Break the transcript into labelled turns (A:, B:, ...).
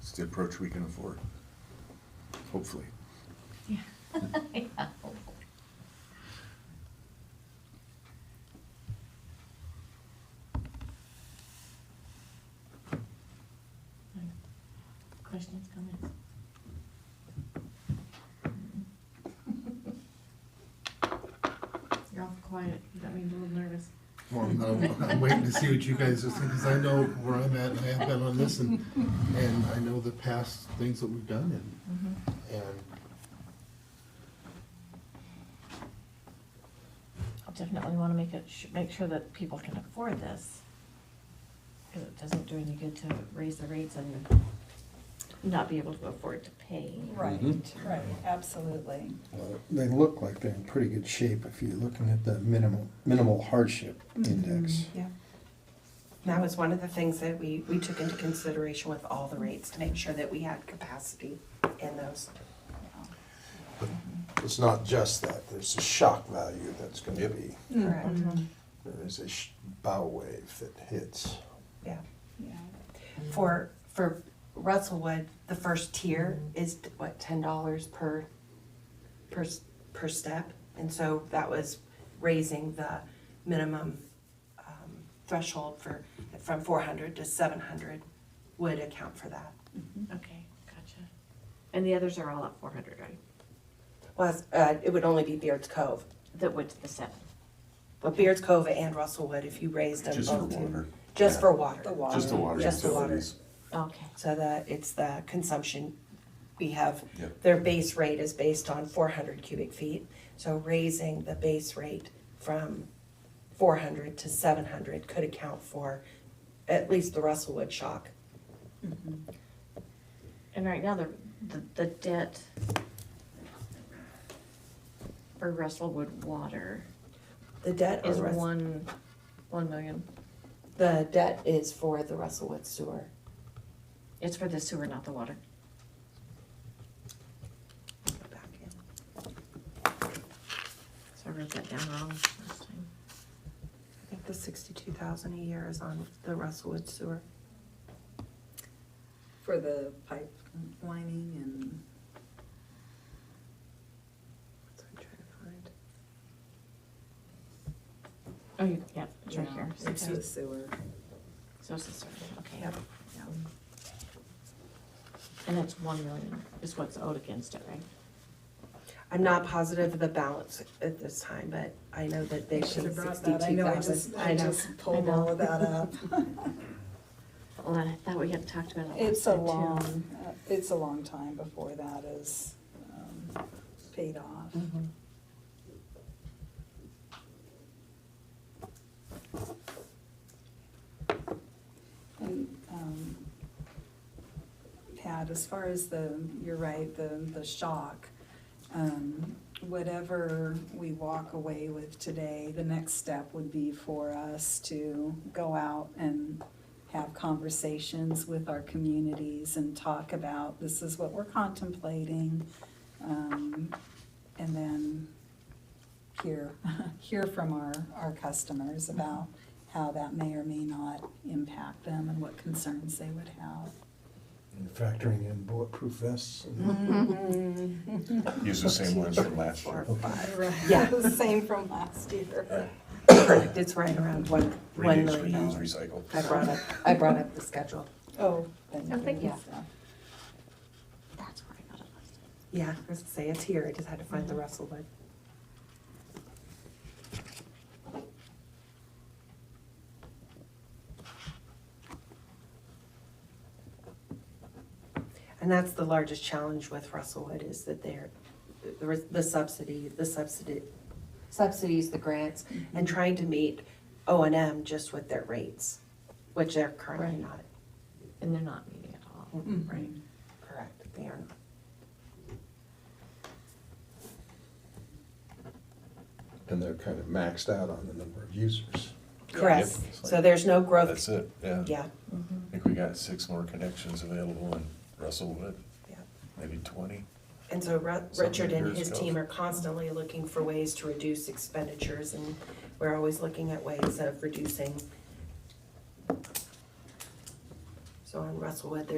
A: It's the approach we can afford, hopefully.
B: Questions, comments?
C: Mm-hmm.
B: You're awful quiet, you got me a little nervous.
D: Well, I'm, I'm waiting to see what you guys are thinking, because I know where I'm at, and I have been on this, and, and I know the past things that we've done,
C: Mm-hmm.
D: and, and
C: I'll definitely wanna make it, sh- make sure that people can afford this. Cause it doesn't do any good to raise the rates and not be able to afford to pay.
E: Right, right, absolutely.
D: uh,
F: Well, They look like they're in pretty good shape if you're looking at the minimal, minimal hardship index.
G: Yeah. That was one of the things that we, we took into consideration with all the rates to make sure that we had capacity in those.
H: It's not just that, there's a shock value that's gonna
A: Yep.
H: be,
G: Correct.
H: there's a sh- bow wave that hits.
G: Yeah.
E: Yeah.
G: For, for Russellwood, the first tier is what, ten dollars per, per, s- per step? And so that was raising the minimum um, threshold for, from four hundred to seven hundred would account for that.
C: Okay, gotcha. And the others are all at four hundred, right?
G: Well, uh, it would only be Beards Cove,
C: That went to the seven.
G: but Beards Cove and Russellwood, if you raised them
A: Just for
G: both to-
A: water.
G: Just
H: Yeah.
G: for water.
E: The water.
A: Just the water
G: Just the water.
A: utilities.
C: Okay.
G: So that, it's the consumption, we have,
A: Yep.
G: their base rate is based on four hundred cubic feet. So raising the base rate from four hundred to seven hundred could account for at least the Russellwood shock.
C: And right now, the, the, the debt for Russellwood Water
G: The debt
C: is
G: on Rus-
C: one, one million.
G: The debt is for the Russellwood sewer.
C: It's for the sewer, not the water.
G: Go back in.
C: So I wrote that down wrong last time.
G: I think the sixty-two thousand a year is on the Russellwood sewer.
E: For the pipe lining and.
G: That's what I'm trying to find.
C: Oh, you, yeah, it's right
E: Yeah,
C: here.
E: It's
C: Okay.
E: the sewer,
C: So it's the sewer, okay.
G: Yep.
E: yeah.
C: And that's one million is what's owed against it, right?
G: I'm not positive of the balance at this time, but I know that they
E: I
G: should
E: should've
G: have
E: brought that. I
G: sixty-two
E: know, I
G: thousand.
E: just- I just pulled all of that up.
C: Well, I thought we had talked about it last time too.
E: It's a long, uh, it's a long time before that is um, paid off.
C: Mm-hmm.
E: And, um, Pat, as far as the, you're right, the, the shock, um, whatever we walk away with today, the next step would be for us to go out and have conversations with our communities and talk about, this is what we're contemplating. Um, and then hear, hear from our, our customers about how that may or may not impact them and what concerns they would have.
H: And Factoring in bulletproof vests and
A: Use the same ones from last year.
G: Yeah.
E: Same from last year.
G: Correct, it's right around one, one
A: Reduce,
G: million
A: reuse,
G: dollars.
A: recycle.
G: I brought up, I brought up the schedule.
E: Oh, thank you.
C: Oh, thank you.
E: Yeah.
C: That's where I got it last time.
G: Yeah, I was gonna say, it's here, I just had to find the Russell one. And that's the largest challenge with Russellwood is that they're, the- the subsidy, the subsidy, subsidies, the grants, and trying to meet O and M just with their rates, which they're currently not.
C: And they're not meeting at all.
E: Mm-hmm.
G: Right. Correct, they are not.
H: and they're kind of maxed out on the number of users.
G: Correct,
A: Yep.
G: so there's no growth,
A: That's it, yeah.
G: yeah,
A: I think we got six more connections available in Russellwood,
G: yeah.
A: maybe twenty.
G: And so Ru-
A: Something
G: Richard and
A: years
G: his
A: ago.
G: team are constantly looking for ways to reduce expenditures, and we're always looking at ways of reducing. So on Russellwood,